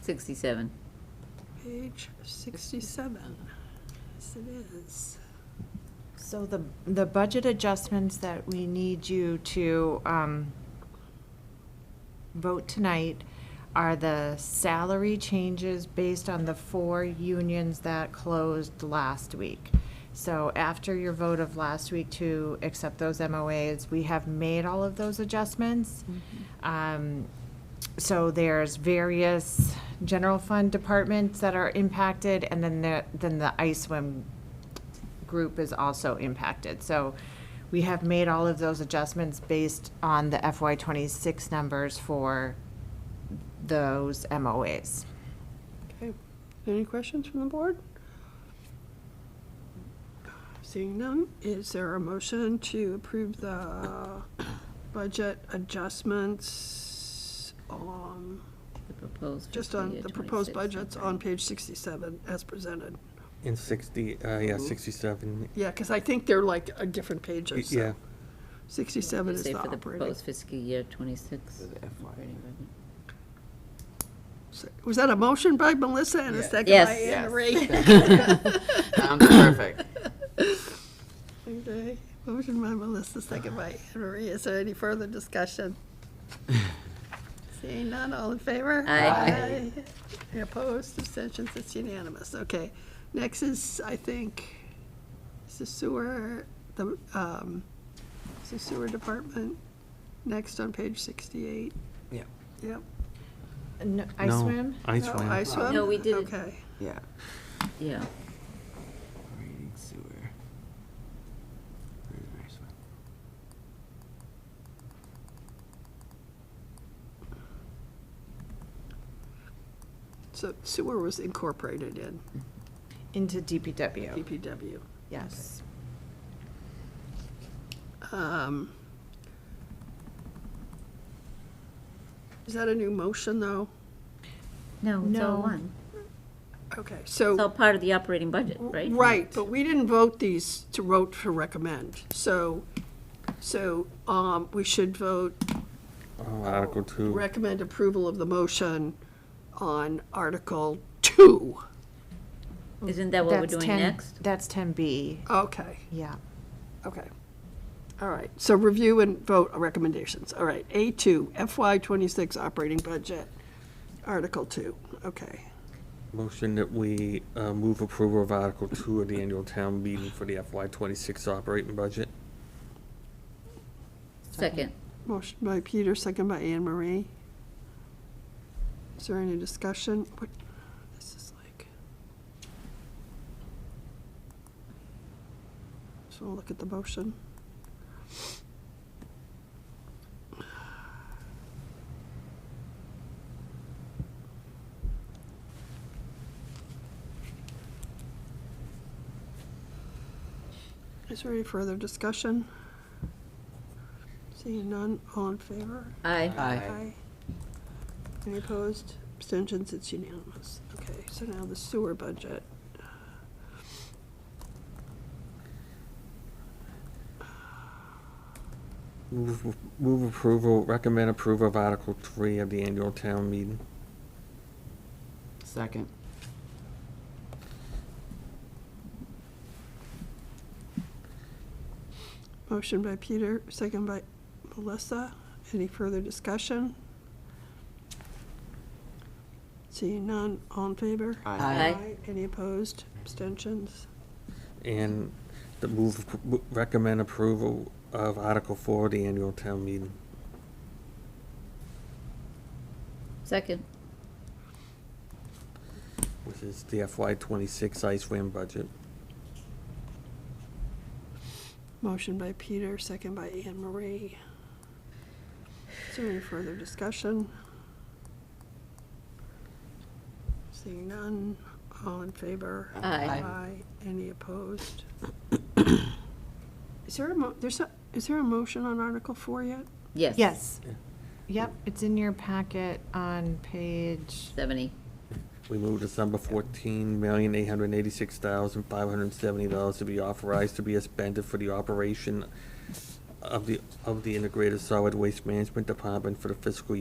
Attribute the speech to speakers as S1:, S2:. S1: 67.
S2: Page 67. Yes, it is.
S3: So the, the budget adjustments that we need you to um, vote tonight are the salary changes based on the four unions that closed last week. So after your vote of last week to accept those MOAs, we have made all of those adjustments. Um, so there's various general fund departments that are impacted, and then the, then the ISWIM group is also impacted. So we have made all of those adjustments based on the FY twenty-six numbers for those MOAs.
S2: Okay. Any questions from the board? Seeing none, is there a motion to approve the budget adjustments on,
S1: The proposed.
S2: just
S1: fiscal
S2: on
S1: year
S2: the proposed
S1: 26,
S2: budgets
S1: okay.
S2: on page 67 as presented?
S4: In 60, uh, yeah, 67.
S2: Yeah, because I think they're like a different page or
S4: Y-
S2: so.
S4: Yeah,
S2: 67
S1: You
S2: is
S1: say
S2: the
S1: for the
S2: operating.
S1: proposed fiscal year 26. operating revenue.
S2: Was that a motion by Melissa and a second by
S1: Yes.
S2: Anne
S5: Yes.
S2: Marie?
S5: Sounds perfect.
S2: Okay, motion by Melissa, second by Anne Marie. Is there any further discussion? Seeing none, all in favor?
S1: Aye.
S2: Aye. Any Opposed, abstentions, it's unanimous. Okay. Next is, I think, is the sewer, the, um, is the sewer department, next on page sixty-eight.
S5: Yeah.
S2: Yep.
S3: No,
S4: No,
S3: ISWIM?
S4: I
S2: No,
S4: swim.
S2: I swim?
S1: No, we didn't.
S2: Okay.
S5: Yeah.
S1: Yeah,
S5: Reading sewer. Where's my sewer?
S2: So sewer was incorporated in
S3: Into DPW,
S2: DPW.
S3: yes.
S2: Um, Is that a new motion, though?
S1: no, it's all
S3: No.
S1: one.
S2: Okay,
S1: It's all
S2: so,
S1: part of the operating budget, right?
S2: right, but we didn't vote these to vote to recommend. So, so um, we should vote
S4: Oh, Article 2.
S2: recommend approval of the motion on Article 2.
S1: Isn't that what we're
S3: That's
S1: doing
S3: 10
S1: next?
S3: That's ten B,
S2: Okay,
S3: yeah.
S2: okay. All right, so review and vote recommendations. All right, A2, FY26 operating budget, Article 2, okay.
S4: Motion that we uh, move approval of Article 2 of the annual town meeting for the FY26 operating budget.
S1: Second.
S2: Motion by Peter, second by Anne Marie. Is there any discussion? What, this is like. So we'll look at the motion. Is there any further discussion? Seeing none, all in favor?
S1: Aye.
S5: Aye.
S2: Any opposed? Abstentions? It's unanimous. Okay, so now the sewer budget.
S4: Move move approval, recommend approval of Article 3 of the annual town meeting.
S5: Second.
S2: Motion by Peter, second by Melissa. Any further discussion? Seeing none, all in favor?
S1: Aye.
S2: Any opposed? Abstentions?
S4: And the move, appro- recommend approval of Article 4 of the annual town meeting.
S1: Second.
S4: which is the FY26 ice swim budget.
S2: Motion by Peter, second by Anne Marie. Is there any further discussion? Seeing none, all in favor?
S1: Aye.
S2: Any opposed? Is there a mo, there's a, is there a motion on Article Four yet?
S1: Yes.
S3: Yes.
S4: Yeah.
S3: Yep, it's in your packet on page,
S1: 70.
S4: We move December fourteen million, eight hundred and eighty-six thousand, five hundred and seventy dollars to be authorized to be expended for the operation of the, of the Integrated Solid Waste Management Department for the fiscal